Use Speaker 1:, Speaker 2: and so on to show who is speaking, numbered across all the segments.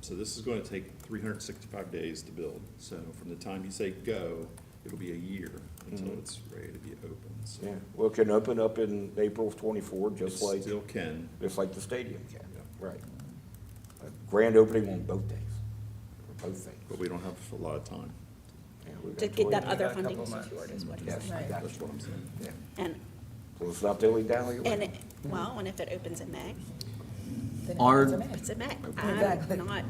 Speaker 1: So this is going to take 365 days to build. So from the time you say go, it'll be a year until
Speaker 2: Mhm.
Speaker 1: it's ready to be open, so.
Speaker 2: Yeah, well, it can open up in April of twenty-four,
Speaker 1: it
Speaker 2: just like,
Speaker 1: Still can,
Speaker 2: just like the stadium can,
Speaker 1: Yeah.
Speaker 2: right. A Grand opening on both days, for both
Speaker 1: but
Speaker 2: things.
Speaker 1: we don't have a lot of time.
Speaker 2: Yeah, we've
Speaker 3: To
Speaker 2: got
Speaker 3: get that
Speaker 2: 20
Speaker 3: other
Speaker 4: Got a couple
Speaker 3: funding
Speaker 4: months.
Speaker 3: secured is what you're
Speaker 2: Yes,
Speaker 3: saying.
Speaker 2: I got
Speaker 1: That's
Speaker 2: you.
Speaker 1: what I'm saying.
Speaker 2: Yeah,
Speaker 3: And,
Speaker 2: so it's not the only down the
Speaker 3: and,
Speaker 2: way.
Speaker 3: it- well, and if it opens in May,
Speaker 4: Then it
Speaker 5: Are-
Speaker 4: comes to me.
Speaker 3: it's in May.
Speaker 4: Exactly.
Speaker 3: I'm not.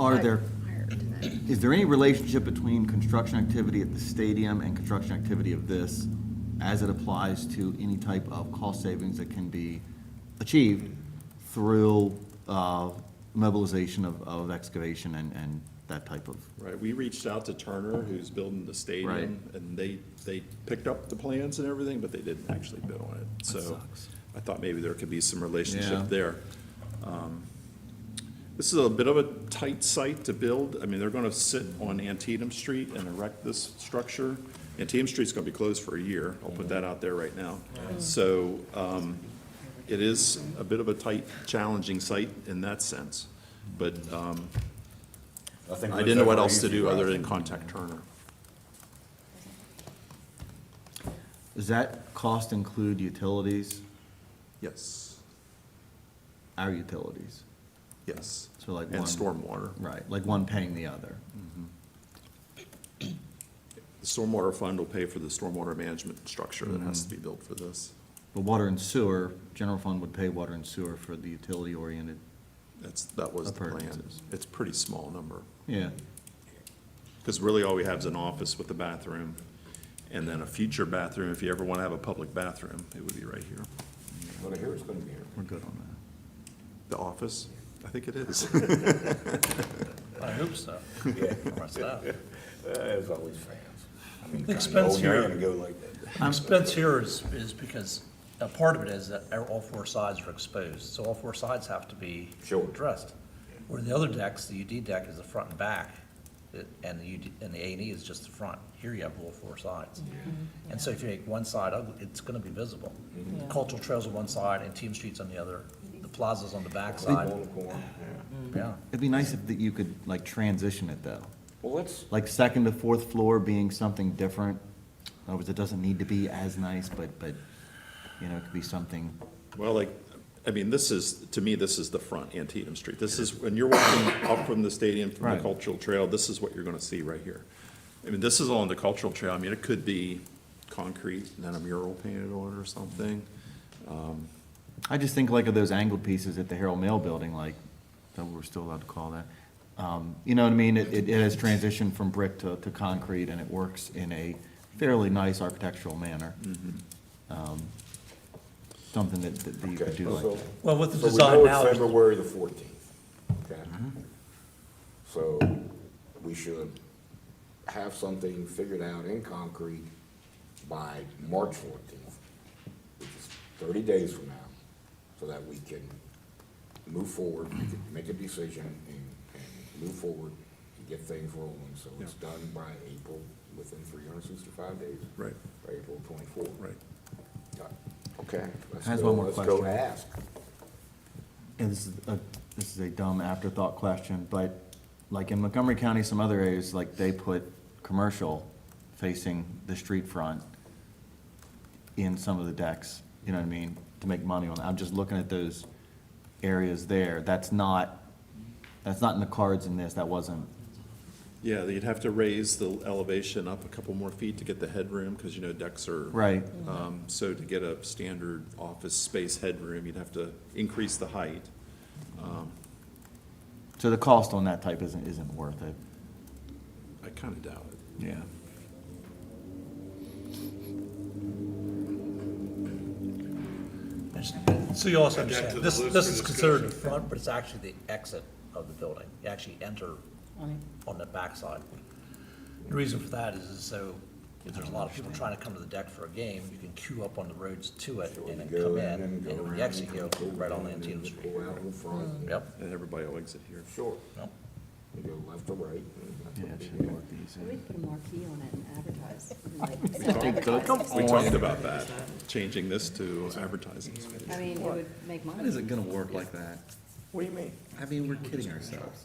Speaker 5: Are there,
Speaker 3: hired to that.
Speaker 5: is there any relationship between construction activity at the stadium and construction activity of this as it applies to any type of cost savings that can be achieved through uh, mobilization of, of excavation and, and that type of?
Speaker 1: Right, we reached out to Turner, who's building the stadium,
Speaker 5: Right.
Speaker 1: and they, they picked up the plans and everything, but they didn't actually build on it. So
Speaker 5: sucks.
Speaker 1: I thought maybe there could be some
Speaker 5: Yeah.
Speaker 1: relationship there. Um, This is a bit of a tight site to build. I mean, they're gonna sit on Antietam Street and erect this structure. Antietam Street's gonna be closed for a year. I'll put that out there right now. So, um, it is a bit of a tight, challenging site in that sense. But, um,
Speaker 2: think
Speaker 1: I didn't know what else to do other than contact Turner.
Speaker 5: Does that cost include utilities,
Speaker 1: Yes,
Speaker 5: our utilities?
Speaker 1: yes.
Speaker 5: So like
Speaker 1: And
Speaker 5: one-
Speaker 1: stormwater.
Speaker 5: Right, like one paying the other.
Speaker 1: The stormwater fund will pay for the stormwater management structure that
Speaker 5: Mm-hmm.
Speaker 1: has to be built for this.
Speaker 5: But water and sewer, general fund would pay water and sewer for the utility-oriented,
Speaker 1: That's, that was the plan.
Speaker 5: Appurtenances.
Speaker 1: It's a pretty small number,
Speaker 5: yeah.
Speaker 1: because really all we have is an office with a bathroom, and then a future bathroom, if you ever want to have a public bathroom, it would be right here.
Speaker 2: But I hear it's gonna be here.
Speaker 5: We're good on that.
Speaker 1: The office, I think it is.
Speaker 6: I hope so. Myself.
Speaker 2: There's always fans.
Speaker 6: Expense here.
Speaker 2: And go like that.
Speaker 6: Expense here is, is because, a part of it is that all four sides are exposed, so all four sides have to be
Speaker 2: Sure.
Speaker 6: addressed. Where the other decks, the UD deck is the front and back, it- and the UD, and the A and E is just the front. Here you have all four sides.
Speaker 2: Mm-hmm.
Speaker 6: And so if you make one side ugly, it's gonna be visible.
Speaker 4: Yeah.
Speaker 6: Cultural trails on one side and Team Street's on the other, the plaza's on the back
Speaker 2: Sleep
Speaker 6: side.
Speaker 2: on the corner, yeah.
Speaker 6: yeah.
Speaker 5: It'd be nice if that you could like transition it though,
Speaker 2: Well, let's,
Speaker 5: like second to fourth floor being something different. In other words, it doesn't need to be as nice, but, but, you know, it could be something,
Speaker 1: Well, like, I mean, this is, to me, this is the front Antietam Street. This is, when you're walking up from the stadium, from the
Speaker 5: Right.
Speaker 1: cultural trail, this is what you're gonna see right here. I mean, this is all on the cultural trail. I mean, it could be concrete and then a mural painted on it or something.
Speaker 5: I just think like of those angled pieces at the Herald Mail Building, like, that we're still allowed to call that. Um, you know what I mean? It, it it has transitioned from brick to, to concrete and it works in a fairly nice architectural manner. Um, Something that, that you
Speaker 2: okay,
Speaker 5: could do like
Speaker 2: so.
Speaker 5: that.
Speaker 6: Well, with the
Speaker 2: So we
Speaker 6: design
Speaker 2: know
Speaker 6: now.
Speaker 2: it's February the fourteenth, okay? So we should have something figured out in concrete by March fourteenth, which is thirty days from now, so that we can move forward, we can make a decision and, and move forward and get things rolling, so it's done by April, within three hundred and sixty-five days.
Speaker 1: Right.
Speaker 2: By April twenty-four.
Speaker 1: Right.
Speaker 2: Done. Okay. let's
Speaker 5: Has
Speaker 2: go-
Speaker 5: one more
Speaker 2: Let's go
Speaker 5: question.
Speaker 2: ask.
Speaker 5: And this is a, this is a dumb afterthought question, but like in Montgomery County, some other areas, like they put commercial facing the street front in some of the decks, you know what I mean, to make money on. I'm just looking at those areas there. That's not, that's not in the cards in this. That wasn't,
Speaker 1: Yeah, you'd have to raise the elevation up a couple more feet to get the headroom, because you know decks are.
Speaker 5: right.
Speaker 1: Um, so to get a standard office space headroom, you'd have to increase the height.
Speaker 5: So the cost on that type isn't, isn't worth it.
Speaker 1: I kinda doubt it.
Speaker 5: Yeah.
Speaker 6: So you also
Speaker 7: Back to
Speaker 6: understand,
Speaker 7: the
Speaker 6: this,
Speaker 7: list
Speaker 6: this
Speaker 7: for
Speaker 6: is considered the
Speaker 7: discussion.
Speaker 6: front, but it's actually the exit of the building. You actually enter on the backside. The reason for that is, is so if there's a lot of people trying to come to the deck for a game, you can queue up on the roads to it and then come in, and
Speaker 2: go
Speaker 6: when
Speaker 2: around,
Speaker 6: you exit, you go
Speaker 2: pull
Speaker 6: right on
Speaker 2: down, and
Speaker 6: Antietam
Speaker 2: then
Speaker 6: Street.
Speaker 2: Pull out in front.
Speaker 6: Yep,
Speaker 1: And everybody will exit here.
Speaker 2: Sure,
Speaker 6: yep.
Speaker 2: you go left or right. and that's
Speaker 5: Yeah,
Speaker 2: what
Speaker 5: it
Speaker 2: we
Speaker 5: should be
Speaker 2: do.
Speaker 5: worth these.
Speaker 8: We put a marquee on it and advertise.
Speaker 1: We talked about that, changing this to advertising.
Speaker 8: I mean, it would make money.
Speaker 5: gonna work like that?
Speaker 4: What do you mean?
Speaker 5: I mean, we're kidding ourselves.